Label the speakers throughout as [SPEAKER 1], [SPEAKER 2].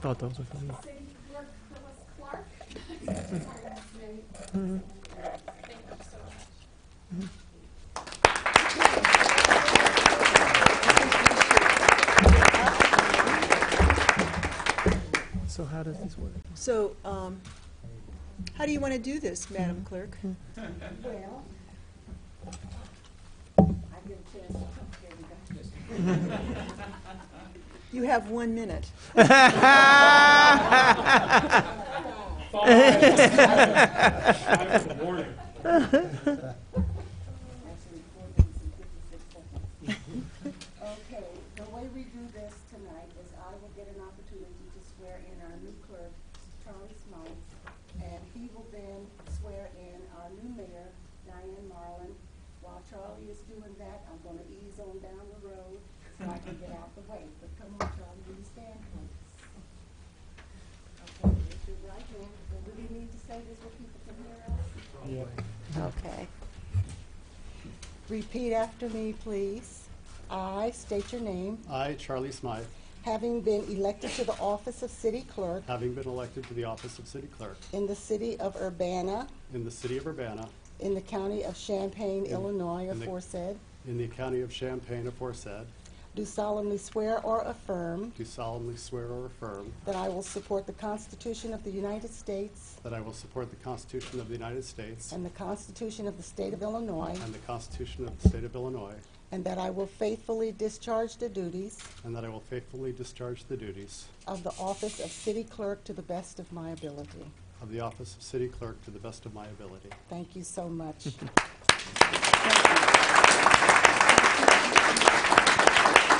[SPEAKER 1] thought those were funny. So how does this work?
[SPEAKER 2] So, um, how do you want to do this, Madam Clerk?
[SPEAKER 3] Well, I get a chance to talk to everybody.
[SPEAKER 2] You have one minute.
[SPEAKER 3] Actually, four minutes and fifty-six seconds. Okay, the way we do this tonight is I will get an opportunity to swear in our new clerk, Charlie Smites, and he will then swear in our new mayor, Diane Marlin. While Charlie is doing that, I'm gonna ease on down the road so I can get out the way. But come on, Charlie, will you stand, please? Okay, raise your right hand. And do we need to say this where people can hear us? Okay. Repeat after me, please. I state your name,
[SPEAKER 4] I, Charlie Smythe,
[SPEAKER 3] having been elected to the office of city clerk
[SPEAKER 4] having been elected to the office of city clerk
[SPEAKER 3] in the city of Urbana,
[SPEAKER 4] in the city of Urbana,
[SPEAKER 3] in the county of Champaign, Illinois,
[SPEAKER 4] in the-
[SPEAKER 3] aforesaid,
[SPEAKER 4] in the county of Champaign aforesaid,
[SPEAKER 3] do solemnly swear or affirm
[SPEAKER 4] do solemnly swear or affirm
[SPEAKER 3] that I will support the Constitution of the United States
[SPEAKER 4] that I will support the Constitution of the United States
[SPEAKER 3] and the Constitution of the state of Illinois,
[SPEAKER 4] and the Constitution of the state of Illinois,
[SPEAKER 3] and that I will faithfully discharge the duties
[SPEAKER 4] and that I will faithfully discharge the duties
[SPEAKER 3] of the office of city clerk to the best of my ability.
[SPEAKER 4] of the office of city clerk to the best of my ability.
[SPEAKER 3] Thank you so much.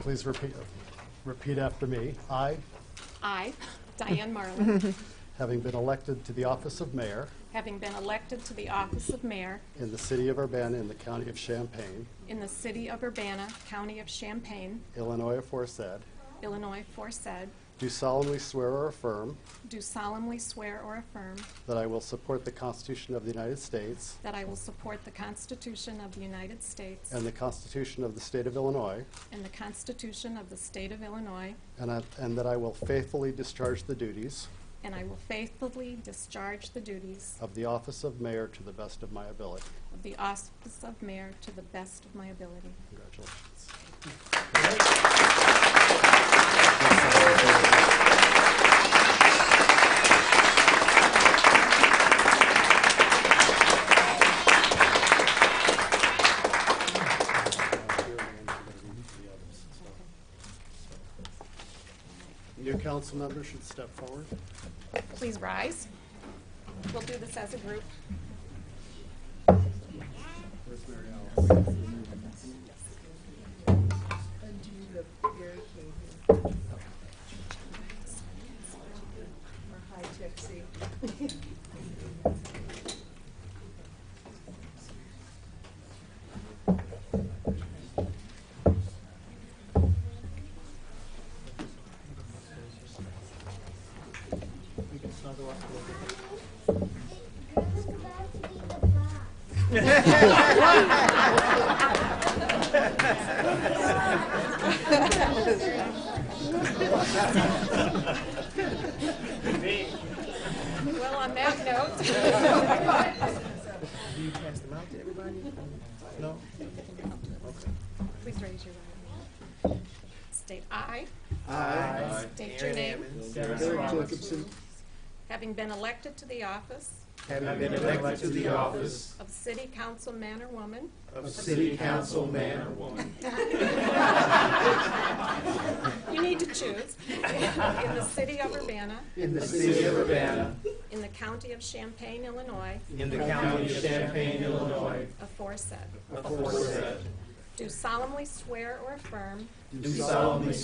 [SPEAKER 4] Please repeat, repeat after me. I,
[SPEAKER 5] I, Diane Marlin,
[SPEAKER 4] having been elected to the office of mayor
[SPEAKER 5] having been elected to the office of mayor
[SPEAKER 4] in the city of Urbana in the county of Champaign,
[SPEAKER 5] in the city of Urbana, county of Champaign,
[SPEAKER 4] Illinois aforesaid,
[SPEAKER 5] Illinois aforesaid,
[SPEAKER 4] do solemnly swear or affirm
[SPEAKER 5] do solemnly swear or affirm
[SPEAKER 4] That I will support the Constitution of the United States
[SPEAKER 5] that I will support the Constitution of the United States
[SPEAKER 4] and the Constitution of the State of Illinois,
[SPEAKER 5] and the Constitution of the state of Illinois,
[SPEAKER 4] and I- and that I will faithfully discharge the duties
[SPEAKER 5] and I will faithfully discharge the duties
[SPEAKER 4] of the office of mayor to the best of my ability.
[SPEAKER 5] of the office of mayor to the best of my ability.
[SPEAKER 4] Congratulations. New council members should step forward.
[SPEAKER 5] Please rise. We'll do this as a group.
[SPEAKER 4] We can snuggle up a little bit.
[SPEAKER 6] Grandma's about to be the boss.
[SPEAKER 5] Well, on that note,
[SPEAKER 4] No?
[SPEAKER 5] Please raise your right hand. State aye. Aye. State your name. Having been elected to the office
[SPEAKER 7] Having been elected to the office
[SPEAKER 5] of City Council man or woman
[SPEAKER 7] of City Council man or woman
[SPEAKER 5] You need to choose. In the city of Urbana,
[SPEAKER 7] in the city of Urbana,
[SPEAKER 5] in the county of Champaign, Illinois,
[SPEAKER 7] in the county of Champaign, Illinois,
[SPEAKER 5] aforesaid.
[SPEAKER 7] aforesaid,
[SPEAKER 5] Do solemnly swear or affirm
[SPEAKER 7] do solemnly